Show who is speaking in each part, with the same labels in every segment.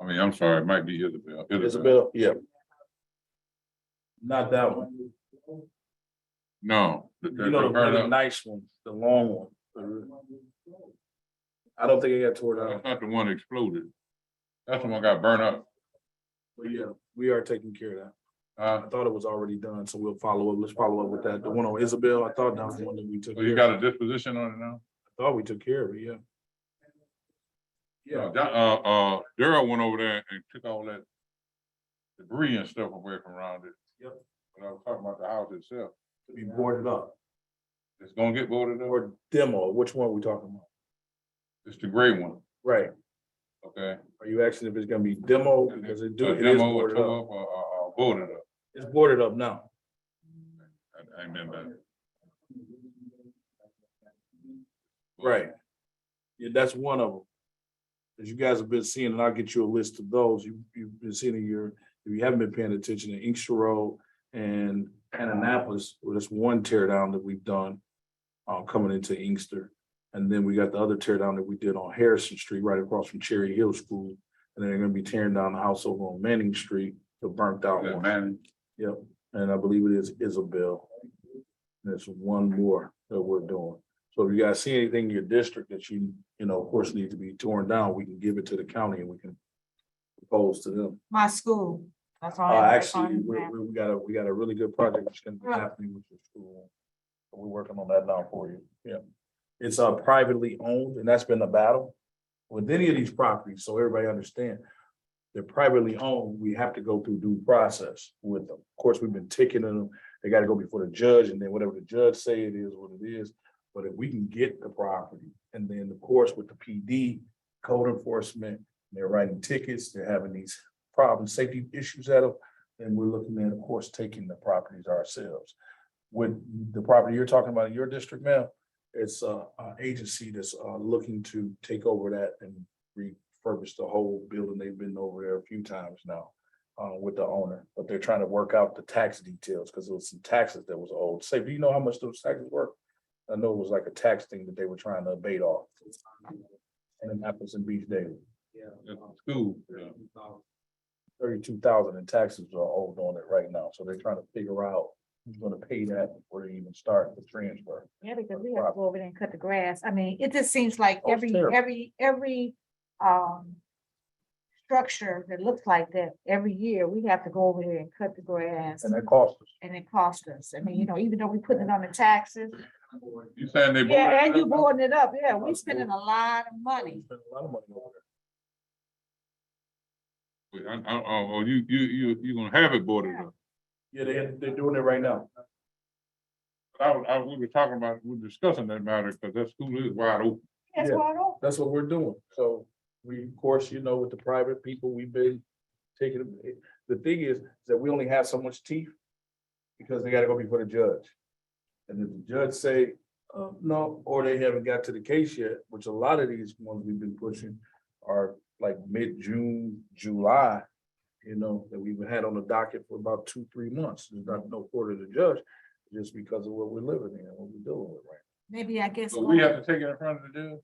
Speaker 1: I mean, I'm sorry, it might be Isabel.
Speaker 2: Isabel, yeah. Not that one.
Speaker 1: No. the- the-
Speaker 2: You know, the
Speaker 1: the burnt
Speaker 2: really
Speaker 1: up-
Speaker 2: nice one, the long one. I don't think it got tore down,
Speaker 1: That's not the one that exploded. That's the one got burnt up.
Speaker 2: but yeah, we are taking care of that. I
Speaker 1: Uh,
Speaker 2: thought it was already done, so we'll follow up. Let's follow up with that. The one on Isabel, I thought that was the one that we took.
Speaker 1: so you
Speaker 2: care of.
Speaker 1: got a disposition on it now?
Speaker 2: I Thought we took care of it, yeah.
Speaker 1: Uh, that- Uh, uh, Daryl went over there and took all that debris and stuff away from around it.
Speaker 2: Yep.
Speaker 1: But I was talking about the house itself.
Speaker 2: Be boarded up.
Speaker 1: It's gonna get boarded up.
Speaker 2: Or demo, which one are we talking about?
Speaker 1: It's the gray one,
Speaker 2: Right,
Speaker 1: okay?
Speaker 2: are you asking if it's gonna be demo, because it do,
Speaker 1: A
Speaker 2: it is
Speaker 1: demo or uh,
Speaker 2: boarded
Speaker 1: tore
Speaker 2: up,
Speaker 1: up or, or- or boarded up.
Speaker 2: it's boarded up now.
Speaker 1: I- I meant that.
Speaker 2: Right. Yeah, that's one of them. As you guys have been seeing, and I'll get you a list of those, you, you've been seeing in your, if you haven't been paying attention, in Inkster Road and Annapolis, well, that's one tear down that we've done uh, coming into Inkster. And then we got the other tear down that we did on Harrison Street, right across from Cherry Hill School. And then they're gonna be tearing down the house over on Manning Street, the burnt out
Speaker 1: That
Speaker 2: one.
Speaker 1: man,
Speaker 2: Yep, and I believe it is Isabel. There's one more that we're doing. So if you guys see anything in your district that you, you know, of course, needs to be torn down, we can give it to the county and we can propose to them.
Speaker 3: My school. That's all.
Speaker 2: Uh,
Speaker 3: I
Speaker 2: actually, we, we we got a, we got a really good project that's gonna be
Speaker 3: Yeah.
Speaker 2: happening with the school. We're working on that now for you. Yeah. It's uh privately owned and that's been the battle with any of these properties. So everybody understand. They're privately owned. We have to go through due process with them. Of course, we've been ticketing them. They gotta go before the judge and then whatever the judge say it is what it is. But if we can get the property and then of course with the PD, code enforcement, they're writing tickets, they're having these problems, safety issues at them. And we're looking at, of course, taking the properties ourselves. With the property you're talking about in your district now, it's a, a agency that's, uh, looking to take over that and refurbish the whole building. They've been over there a few times now. Uh, with the owner, but they're trying to work out the tax details, because there was some taxes that was owed. Say, do you know how much those taxes were? I know it was like a tax thing that they were trying to abate off. And in Appleton Beach Daily.
Speaker 1: that's the school. yeah.
Speaker 2: thirty-two thousand in taxes are owed on it right now, so they're trying to figure out who's gonna pay that before they even start the transfer.
Speaker 3: Yeah, because we have to go over there and cut the grass. I mean, it just seems like
Speaker 2: Oh, it's
Speaker 3: every,
Speaker 2: terrible.
Speaker 3: every, every, um. Structure that looks like that, every year, we have to go over there and cut the grass
Speaker 2: And that costs us.
Speaker 3: and it costs us. I mean, you know, even though we putting it on the taxes.
Speaker 1: You saying they.
Speaker 3: Yeah, and
Speaker 1: boarded it
Speaker 3: you
Speaker 1: up?
Speaker 3: boarding it up. Yeah, we spending a lot of money.
Speaker 2: We spend a lot of money over
Speaker 1: Wait, I- I- Oh, oh, you, you, you, you gonna have it boarded up.
Speaker 2: there. Yeah, they, they're doing it right now.
Speaker 1: But I, was- I, we were talking about, we were discussing that matter, because that school is wide open.
Speaker 3: That's
Speaker 2: Yeah.
Speaker 3: why I don't.
Speaker 2: That's what we're doing, so we, of course, you know, with the private people, we've been taking, the thing is, that we only have so much teeth. Because they gotta go before the judge. And if the judge say, uh, no, or they haven't got to the case yet, which a lot of these ones we've been pushing are like mid-June, July. You know, that we've had on the docket for about two, three months, there's not no order to judge, just because of what we're living in, and what we're dealing with right now.
Speaker 3: Maybe I guess.
Speaker 1: So we have to take it in front of the judge.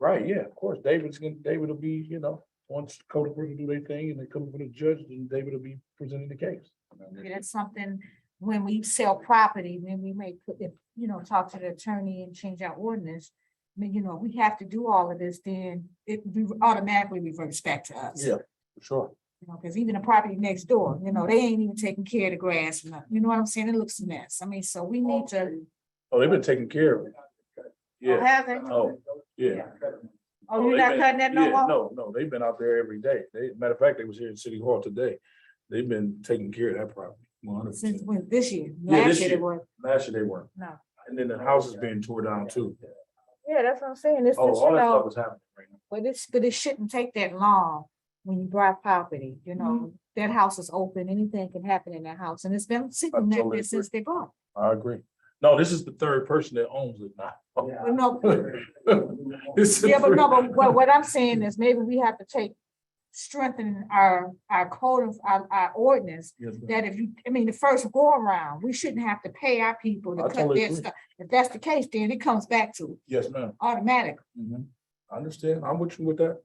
Speaker 2: Right, yeah, of course, David's gonna, David will be, you know, once Code Enforcement do their thing and they come for the judge, then David will be presenting the case.
Speaker 3: Maybe That's something, when we sell property, then we may put, it, you know, talk to the attorney and change our ordinance. I mean, you know, we have to do all of this, then it re- automatically reverts back to us.
Speaker 2: Yeah, for sure.
Speaker 3: You know, because even the property next door, you know, they ain't even taking care of the grass, and nothing. you know what I'm saying? It looks a mess. I mean, so we need to.
Speaker 2: Oh, they've been taking care of it. Yeah,
Speaker 3: Have it.
Speaker 2: oh, yeah.
Speaker 3: Oh, you're
Speaker 2: they
Speaker 3: not
Speaker 2: been-
Speaker 3: cutting that no
Speaker 2: yeah,
Speaker 3: more?
Speaker 2: No, no, they've been out there every day. They, matter of fact, they was here in City Hall today. They've been taking care of that property. one hundred
Speaker 3: Since
Speaker 2: percent.
Speaker 3: when, this year?
Speaker 2: Yeah,
Speaker 3: Last
Speaker 2: this
Speaker 3: year they
Speaker 2: year.
Speaker 3: were-
Speaker 2: Last year they weren't.
Speaker 3: No.
Speaker 2: And then the house is being tore down too.
Speaker 3: Yeah, that's what I'm saying. This is,
Speaker 2: Oh, all
Speaker 3: you
Speaker 2: that
Speaker 3: know.
Speaker 2: stuff was happening right now.
Speaker 3: But it's, but it shouldn't take that long when you buy property, you
Speaker 2: Mm-hmm.
Speaker 3: know, that house is open, anything can happen in that house, and it's been sitting there
Speaker 2: totally agree.
Speaker 3: since they bought.
Speaker 2: I agree. No, this is the third person that owns it now.
Speaker 3: But no,
Speaker 2: This is
Speaker 3: yeah, but no,
Speaker 2: the-
Speaker 3: but what, what I'm saying is maybe we have to take, strengthen our, our code of, our, our ordinance.
Speaker 2: Yes, ma'am.
Speaker 3: That if you, I mean, the first go around, we shouldn't have to pay our people
Speaker 2: I
Speaker 3: to cut
Speaker 2: totally
Speaker 3: their
Speaker 2: agree.
Speaker 3: stuff. If that's the case, then it comes back to
Speaker 2: Yes, ma'am.
Speaker 3: automatic.
Speaker 2: Mhm. I understand. I'm with you with that.